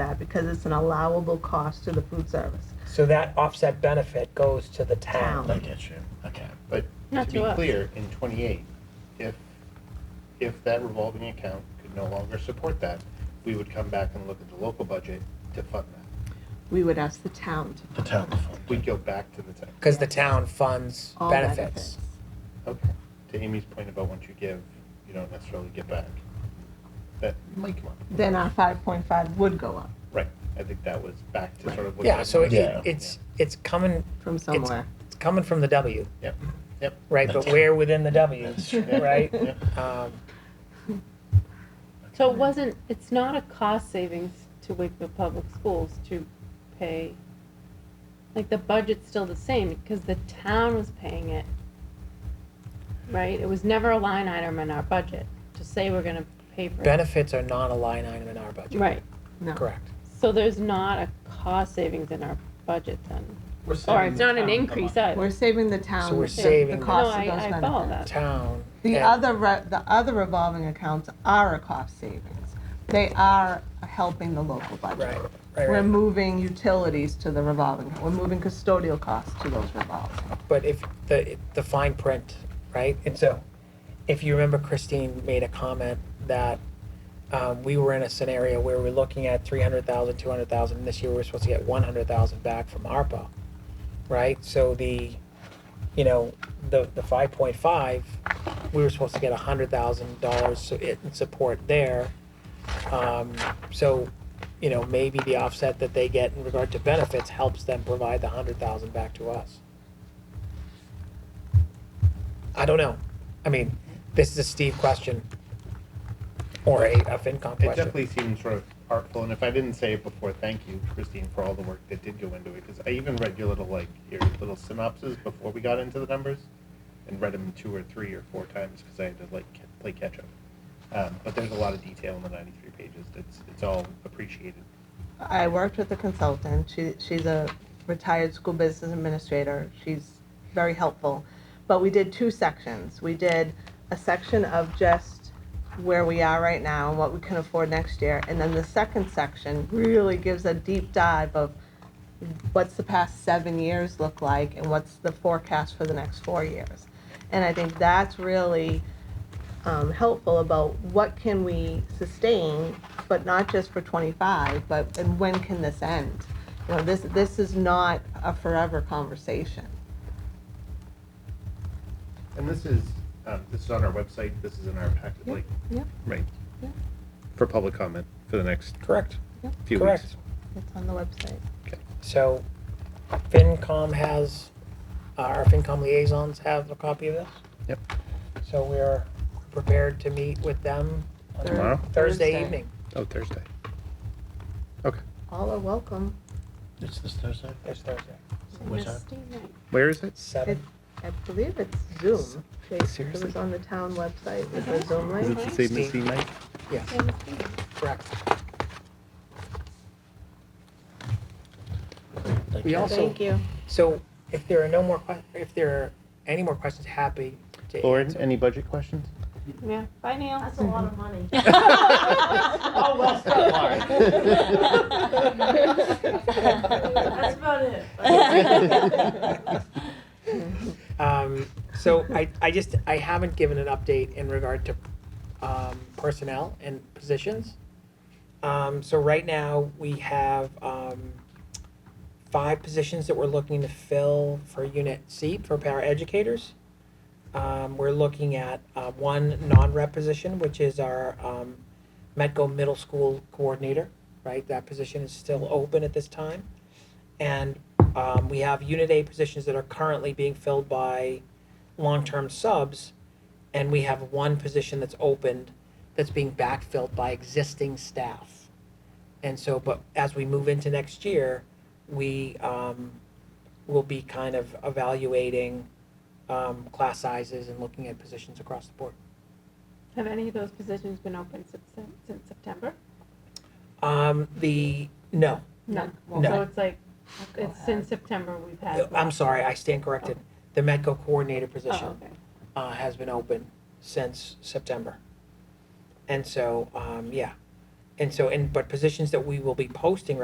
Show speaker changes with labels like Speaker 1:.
Speaker 1: because it's an allowable cost to the food service.
Speaker 2: So that offset benefit goes to the town.
Speaker 1: Town.
Speaker 3: I get you, okay, but
Speaker 4: Not
Speaker 3: to
Speaker 4: to
Speaker 3: be
Speaker 4: us.
Speaker 3: clear, in twenty-eight, if, if that revolving account could no longer support that, we would come back and look at the local budget to fund that.
Speaker 1: We would ask the town to
Speaker 3: The town fund. We'd go back to the town.
Speaker 2: Because the town funds
Speaker 1: all benefits.
Speaker 2: benefits.
Speaker 3: Okay, to Amy's point about once you give, you don't necessarily get back. That might come up.
Speaker 1: Then our five point five would go up
Speaker 3: Right, I think that was back to sort of what.
Speaker 2: Yeah, so it-
Speaker 5: Yeah.
Speaker 2: it's, it's coming,
Speaker 1: from somewhere.
Speaker 2: it's coming from the W,
Speaker 3: Yep, yep.
Speaker 2: right? But where within the W,
Speaker 5: That's true.
Speaker 2: right?
Speaker 3: Yep.
Speaker 2: Um,
Speaker 4: So it wasn't, it's not a cost savings to Wakefield Public Schools to pay, like, the budget's still the same, because the town was paying it, right? It was never a line item in our budget to say we're gonna pay for it.
Speaker 2: Benefits are not a line item in our budget,
Speaker 4: Right,
Speaker 1: No.
Speaker 2: correct?
Speaker 4: so there's not a cost savings in our budget then,
Speaker 6: We're
Speaker 4: or
Speaker 6: saving
Speaker 4: it's
Speaker 6: the
Speaker 4: not an
Speaker 6: town a
Speaker 4: increase
Speaker 6: month.
Speaker 4: either.
Speaker 1: We're saving the town.
Speaker 2: So we're
Speaker 1: the
Speaker 2: saving the-
Speaker 1: cost
Speaker 4: No,
Speaker 1: of
Speaker 4: I-
Speaker 1: those
Speaker 4: I follow
Speaker 1: benefits.
Speaker 2: Town.
Speaker 1: The
Speaker 2: and-
Speaker 1: other, re- the other revolving accounts are a cost savings. They are helping the local budget.
Speaker 2: Right, right,
Speaker 1: We're
Speaker 2: right.
Speaker 1: moving utilities to the revolving, we're moving custodial costs to those revolving.
Speaker 2: But if the, the fine print, right? And so, if you remember, Christine made a comment that um, we were in a scenario where we're looking at 300,000, 200,000, and this year we're supposed to get 100,000 back from ARPA, right? So the, you know, the, the 5.5, we were supposed to get $100,000 so it- in support there. Um, So, you know, maybe the offset that they get in regard to benefits helps them provide the 100,000 back to us. I don't know. I mean, this is a Steve question or a, a FinCom
Speaker 3: It
Speaker 2: question.
Speaker 3: definitely seemed sort of artful, and if I didn't say it before, thank you, Christine, for all the work that did go into it, because I even read your little, like, your little synopses before we got into the numbers, and read them two or three or four times, because I had to, like, ca- play catch-up. Um, but there's a lot of detail in the ninety-three pages, it's, it's all appreciated.
Speaker 1: I worked with a consultant. She, she's a retired school business administrator. She's very helpful. But we did two sections. We did a section of just where we are right now and what we can afford next year. And then the second section really gives a deep dive of what's the past seven years look like and what's the forecast for the next four years. And I think that's really um, helpful about what can we sustain, but not just for 25, but and when can this end? You know, this this is not a forever conversation.
Speaker 3: And this is, um, this is on our website, this is in our packet,
Speaker 1: Yeah,
Speaker 3: like,
Speaker 1: yeah.
Speaker 3: right?
Speaker 1: Yeah.
Speaker 3: For public comment, for the next
Speaker 2: Correct.
Speaker 3: few
Speaker 2: Correct.
Speaker 3: weeks.
Speaker 1: It's on the website.
Speaker 2: So FinCom has, uh, our FinCom liaisons have a copy of this.
Speaker 3: Yep.
Speaker 2: So we're prepared to meet with them on
Speaker 1: Thur-
Speaker 3: Tomorrow?
Speaker 2: Thursday evening.
Speaker 3: Oh, Thursday.
Speaker 1: All are welcome
Speaker 5: It's this Thursday?
Speaker 2: It's Thursday,
Speaker 5: What time?
Speaker 3: Where is it?
Speaker 2: seven.
Speaker 1: I believe it's Zoom. They- It was
Speaker 3: Seriously?
Speaker 1: on the town website. It was Zoom
Speaker 3: Is it
Speaker 1: link.
Speaker 3: the same as the
Speaker 2: Steve.
Speaker 3: night?
Speaker 2: Yes, correct.
Speaker 5: Thank
Speaker 2: We
Speaker 5: you.
Speaker 2: also-
Speaker 1: Thank you.
Speaker 2: So if there are no more, que- if there are any more questions, happy to
Speaker 3: Lauren,
Speaker 2: answer.
Speaker 3: any budget questions?
Speaker 4: Yeah, bye Neil.
Speaker 7: That's a lot of money.
Speaker 4: Oh, well said,
Speaker 7: That's about it.
Speaker 2: Um, So I, I just, I haven't given an update in regard to um, personnel and positions. Um, So right now, we have um, five positions that we're looking to fill for Unit C for paraeducators. Um, We're looking at uh, one non-rep position, which is our um, Metco Middle School Coordinator, right? That position is still open at this time. And um, we have Unit A positions that are currently being filled by long-term subs, and we have one position that's opened that's being backfilled by existing staff. And so, but as we move into next year, we um, will be kind of evaluating um, class sizes and looking at positions across the board.
Speaker 4: Have any of those positions been open since, since September?
Speaker 2: Um, the no,
Speaker 4: No.
Speaker 2: No.
Speaker 4: So it's like, it's since September we've had.
Speaker 2: I'm sorry, I stand corrected. The Metco coordinator position.
Speaker 4: Oh, okay.
Speaker 2: uh, has been open since September. And so, um, yeah, And so, and, but positions that we will be posting